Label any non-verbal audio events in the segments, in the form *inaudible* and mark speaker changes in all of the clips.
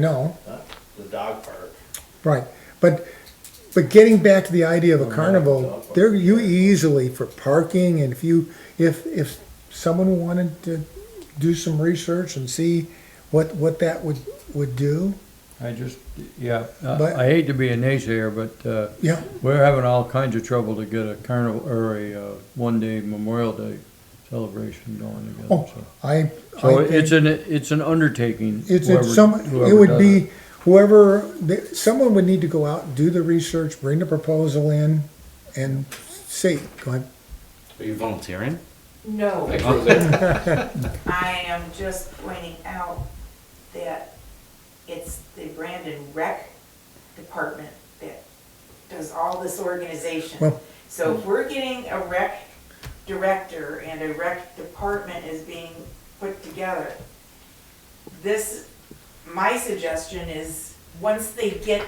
Speaker 1: No,
Speaker 2: Huh? The dog park.
Speaker 1: right, but, but getting back to the idea of a carnival,
Speaker 2: dog
Speaker 1: there,
Speaker 2: park.
Speaker 1: you easily, for parking, and if you, if, if someone wanted to do some research and see what, what that would, would do,
Speaker 3: I just, yeah, I
Speaker 1: But-
Speaker 3: I hate to be a naysayer, but uh,
Speaker 1: yeah,
Speaker 3: we're having all kinds of trouble to get a carnival, or a uh, one-day Memorial Day celebration going together,
Speaker 1: Oh,
Speaker 3: so.
Speaker 1: I.
Speaker 3: So
Speaker 1: I
Speaker 3: it's an, it's an undertaking.
Speaker 1: It's,
Speaker 3: whoever-
Speaker 1: it's some, it
Speaker 3: whoever
Speaker 1: would
Speaker 3: does
Speaker 1: be whoever, the- someone would need to go out, do the research, bring the proposal in and see, go ahead.
Speaker 4: Are you volunteering?
Speaker 5: No,
Speaker 4: Well,
Speaker 5: *laughs* I am just pointing out that it's the Brandon Rec Department that does all this organization.
Speaker 1: Well-
Speaker 5: So if we're getting a rec director and a rec department is being put together, this, my suggestion is, once they get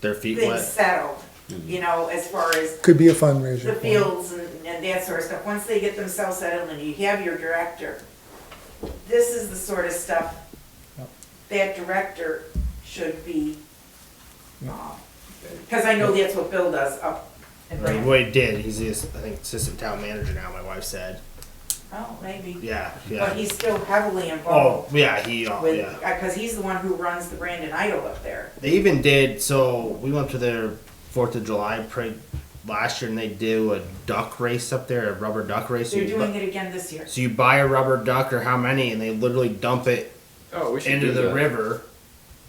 Speaker 4: Their feet
Speaker 5: things
Speaker 4: wet.
Speaker 5: settled, you know, as far as
Speaker 1: Could be a fundraiser.
Speaker 5: the
Speaker 1: for it.
Speaker 5: fields and, and that sort of stuff, once they get themselves settled and you have your director, this is the sort of stuff that director should be, because I know that's what Bill does up in Brandon.
Speaker 4: he did. He's the, ass- I think assistant town manager now. My wife said.
Speaker 5: Oh, maybe,
Speaker 4: Yeah, yeah.
Speaker 5: but he's still heavily
Speaker 4: oh,
Speaker 5: involved
Speaker 4: yeah. He. Oh,
Speaker 5: with,
Speaker 4: yeah.
Speaker 5: because he's the one who runs the Brandon Idol up there.
Speaker 4: They even did. So we went to their Fourth of July parade last year, and they do a duck race up there, a rubber duck race.
Speaker 5: They're
Speaker 4: you bu-
Speaker 5: doing it again this year.
Speaker 4: so you buy a rubber duck or how many, and they literally dump it
Speaker 6: Oh, we should
Speaker 4: into
Speaker 6: do
Speaker 4: the
Speaker 6: that.
Speaker 4: river.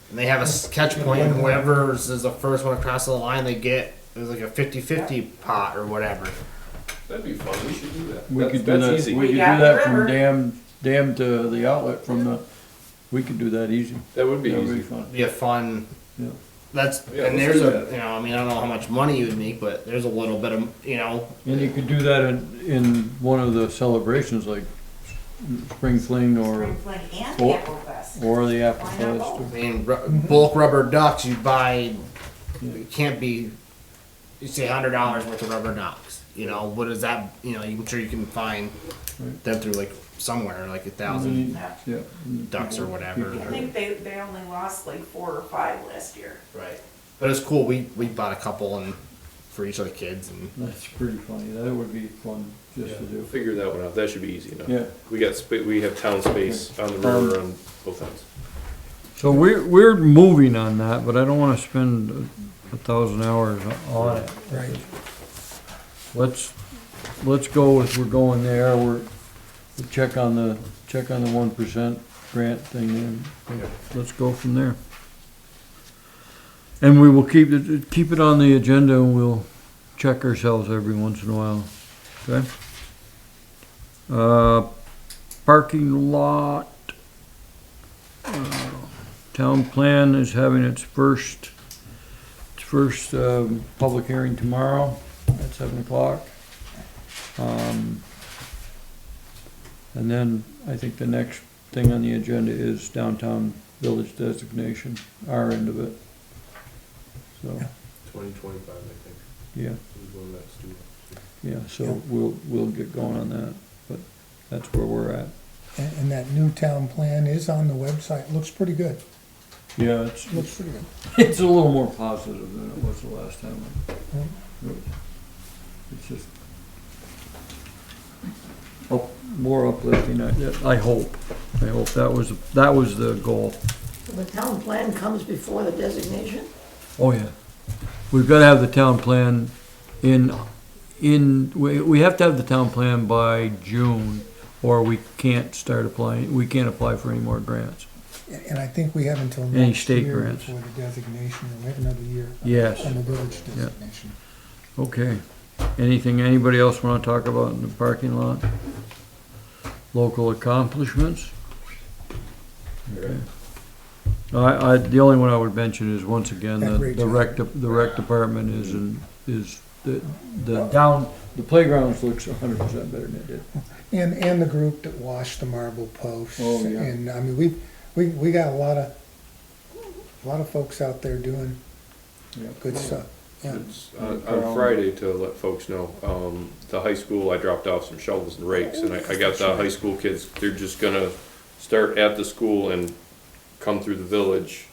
Speaker 4: And they have a s- catch point, and whoever is the first one across the line, they get. There's like a 50-50 pot or whatever.
Speaker 6: That'd be fun. We should do that.
Speaker 3: We
Speaker 6: That's-
Speaker 3: could do
Speaker 6: that's
Speaker 3: that,
Speaker 6: easy.
Speaker 3: we could do
Speaker 5: got
Speaker 3: that
Speaker 5: the river.
Speaker 3: from dam, dam to the outlet from the, we could do that easy.
Speaker 6: That would be
Speaker 3: That would be
Speaker 6: easy.
Speaker 3: fun.
Speaker 4: be a fun.
Speaker 3: Yeah.
Speaker 4: That's
Speaker 6: Yeah,
Speaker 4: and
Speaker 6: let's
Speaker 4: there's
Speaker 6: do
Speaker 4: a
Speaker 6: that.
Speaker 4: you know I mean I don't know how much money you would make, but there's a little bit of you know
Speaker 3: And you could do that in, in one of the celebrations like Spring Fling or,
Speaker 5: Spring Fling and
Speaker 3: Or-
Speaker 5: Apple Fest.
Speaker 3: or the Apple
Speaker 5: Why not
Speaker 3: Fest. or-
Speaker 4: I mean ru-
Speaker 3: Mm-hmm.
Speaker 4: bulk rubber ducks you buy it can't be you say hundred dollars worth of rubber ducks you know what is that you know I'm sure you can find
Speaker 3: Right.
Speaker 4: them through like somewhere like a thousand
Speaker 3: Mhm.
Speaker 5: Yeah.
Speaker 3: Yeah.
Speaker 4: ducks or whatever
Speaker 5: I think they, they only lost like four or five last year.
Speaker 3: Mm-hmm.
Speaker 4: right but it's cool we we bought a couple and for each of the kids and
Speaker 3: That's pretty funny. That would be fun just to
Speaker 6: We'll
Speaker 3: do.
Speaker 6: figure that one out. That should be easy enough.
Speaker 3: Yeah. Um,
Speaker 6: We got spa, we have town space on the river on both ends.
Speaker 3: So we're, we're moving on that, but I don't wanna spend a thousand hours on it.
Speaker 1: Right.
Speaker 3: Let's, let's go with, we're going there, we're, we check on the, check on the one percent grant thing and let's go from there. And we will keep it, keep it on the agenda and we'll check ourselves every once in a while, okay? Uh, parking lot. uh, Town plan is having its first, its first, um, public hearing tomorrow at seven o'clock. Um, And then I think the next thing on the agenda is downtown village designation, our end of it. So,
Speaker 6: Twenty twenty-five, I think,
Speaker 3: yeah,
Speaker 6: is when that's due.
Speaker 3: yeah, so we'll, we'll get going on that, but that's where we're at.
Speaker 1: And, and that new town plan is on the website, looks pretty good,
Speaker 3: Yeah, it's,
Speaker 1: looks pretty good.
Speaker 3: it's a little more positive than it was the last time. I- It's just up- more uplifting, I, I hope, I hope. That was, that was the goal.
Speaker 7: The town plan comes before the designation?
Speaker 3: Oh, yeah. We've got to have the town plan in, in, we, we have to have the town plan by June, or we can't start applying, we can't apply for any more grants.
Speaker 1: And and I think we have until
Speaker 3: Any
Speaker 1: next
Speaker 3: state
Speaker 1: year
Speaker 3: grants.
Speaker 1: before the designation, we have another year
Speaker 3: Yes.
Speaker 1: on the village designation.
Speaker 3: Okay. Anything anybody else want to talk about in the parking lot? Local accomplishments? Okay. I, I, the only one I would mention is, once again, the, the rec, de- the rec department is, in- is, the, the down, the playgrounds looks hundred percent better than it did.
Speaker 1: And, and the group that washed the marble posts.
Speaker 3: Oh, yeah.
Speaker 1: And, I mean, we, we, we got a lot of, a lot of folks out there doing good stuff. Yeah.
Speaker 6: It's on, on Friday to let folks know, um, the high school, I dropped off some shovels and rakes and I, I got the high school kids, they're just gonna start at the school and come through the village